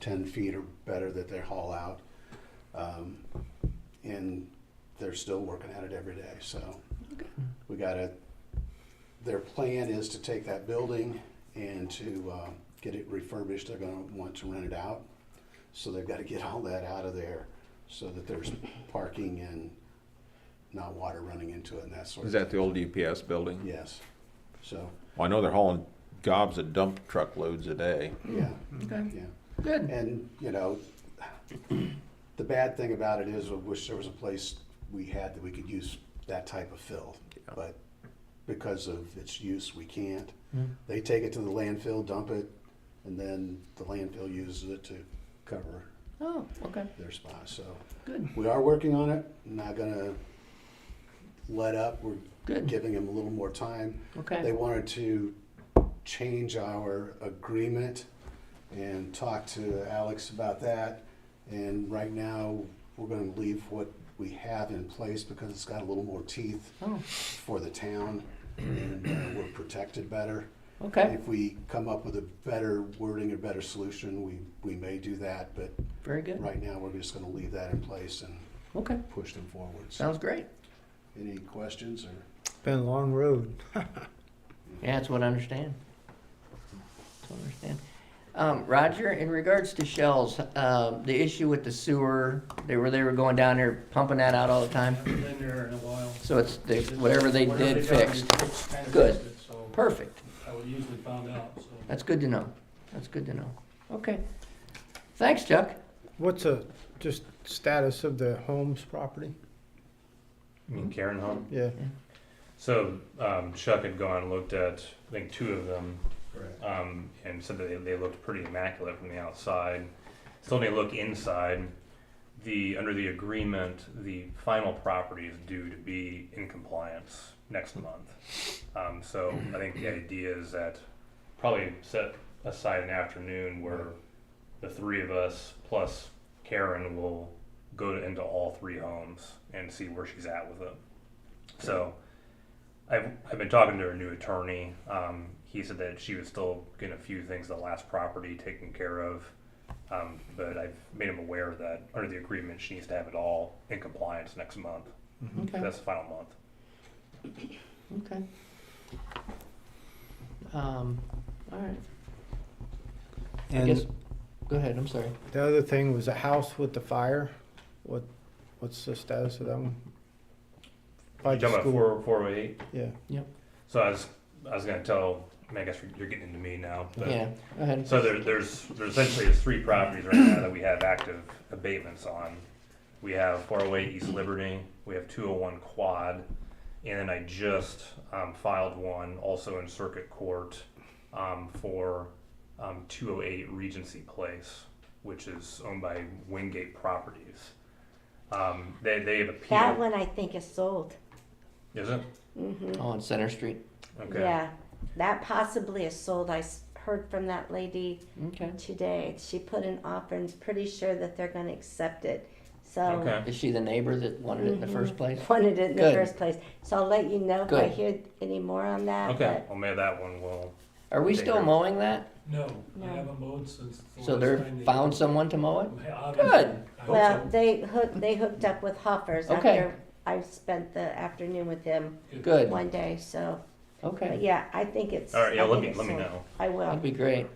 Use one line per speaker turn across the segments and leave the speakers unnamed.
ten feet or better that they haul out. Um, and they're still working at it every day, so. We gotta, their plan is to take that building and to, uh, get it refurbished, they're gonna want to rent it out. So they've gotta get all that out of there so that there's parking and not water running into it and that sort of.
Is that the old UPS building?
Yes, so,
Well, I know they're hauling gobs of dump truck loads a day.
yeah,
Okay,
yeah.
good.
And, you know, the bad thing about it is, I wish there was a place we had that we could use that type of fill.
Yeah.
But because of its use, we can't. They take it to the landfill, dump it, and then the landfill uses it to cover
Oh, okay,
their spot. So
good,
we are working on it, not gonna let up. We're
Good.
giving them a little more time. They
okay.
wanted to change our agreement and talk to Alex about that. And right now, we're gonna leave what we have in place because it's got a little more teeth
Oh,
for the town and uh, we're protected better.
okay,
If we come up with a better wording, a better solution, we, we may do that, but
very good.
right now, we're just gonna leave that in place and
Okay,
push them forward. So,
sounds great.
any questions or?
Been a long road.
Yeah, that's what I understand. That's what I understand. Um, Roger, in regards to shells, uh, the issue with the sewer, they were, they were going down there pumping that out all the time.
Haven't been there in a while.
So it's, the whatever they did
done, they
fixed.
kinda
Good.
fixed it, So
Perfect.
I would usually find out, so.
That's good to know. That's good to know. Okay. Thanks, Chuck.
What's a, just status of the Holmes property?
You mean Karen Home?
Yeah,
So um, Chuck had gone and looked at, I think, two of them um, and said that they, they looked pretty immaculate from the outside. Still need to look inside. The Under the agreement, the final property is due to be in compliance next month. Um, so I think the idea is that probably set aside an afternoon where the three of us plus Karen will go into all three homes and see where she's at with it. So I've, I've been talking to her new attorney. Um, he said that she was still getting a few things, the last property taken care of. Um, but I've made him aware that under the agreement, she needs to have it all in compliance next month.
Okay,
That's the final month.
okay. Um, all right. I guess,
and
go ahead, I'm sorry.
the other thing was a house with the fire. What, what's the status of that one? By
You
the
talking about
school,
four, four oh eight?
yeah.
So I was, I was gonna tell, I guess you're getting into me now, but.
Yeah, go ahead.
So there, there's, there's essentially there's three properties right now that we have active abatements on. We have four oh eight East Liberty, we have two oh one Quad, and then I just, um, filed one also in Circuit Court, um, for, um, two oh eight Regency Place, which is owned by Wingate Properties. Um, they, they have
That
appealed,
one I think is sold.
is it?
Oh, On Center Street.
Okay,
Yeah, that possibly is sold. I s- heard from that lady
Okay.
today. She put an offer and is pretty sure that they're gonna accept it. So
okay,
Is she the neighbor that wanted it in the first place?
wanted it in the
Good.
first place. So I'll let you know if I
Good.
hear any more on that.
okay,
but-
well, maybe that one will,
Are we still
Neighbor.
mowing that?
No, I
No.
haven't mowed since. the
So
last
they're
time they-
found someone to mow it?
Obviously,
Good.
I hope
Well,
so.
they hooked, they hooked up with Hoffers
Okay.
after I spent the afternoon with him
Good.
one day, so, but
Okay,
yeah, I think it's.
alright, yeah,
I
let
think
me,
it's
let me
sold.
know.
I will.
that'd be great.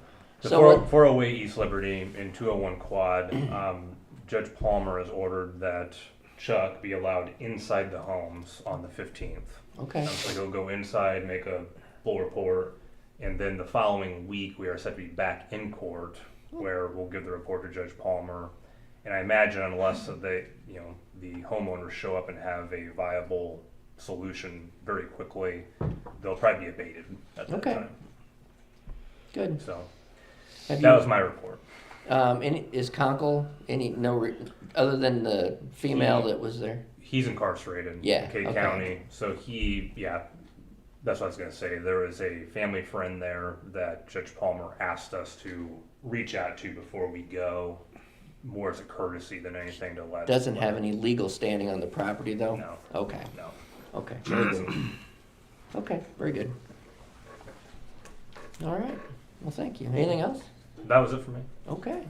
The
So
four,
what-
408 East Liberty and 201 Quad, um, Judge Palmer has ordered that Chuck be allowed inside the homes on the 15th.
Okay,
Um, So he'll go inside, make a full report, and then the following week we are set to be back in court where we'll give the report to Judge Palmer. And I imagine unless they, you know, the homeowners show up and have a viable solution very quickly, they'll probably be abated at that
Okay.
time.
good.
So
Have
that was
you,
my report.
um, any, is Conkle, any, no, re- other than the female that was there?
he's incarcerated
Yeah,
in K
okay.
County. So he, yeah, that's what I was going to say. There was a family friend there that Judge Palmer asked us to reach out to before we go, more as a courtesy than anything to let.
Doesn't have any legal standing on the property, though?
No.
Okay,
No.
okay, very good. Okay, very good. All right, well, thank you. Anything else?
That was it for me.
Okay.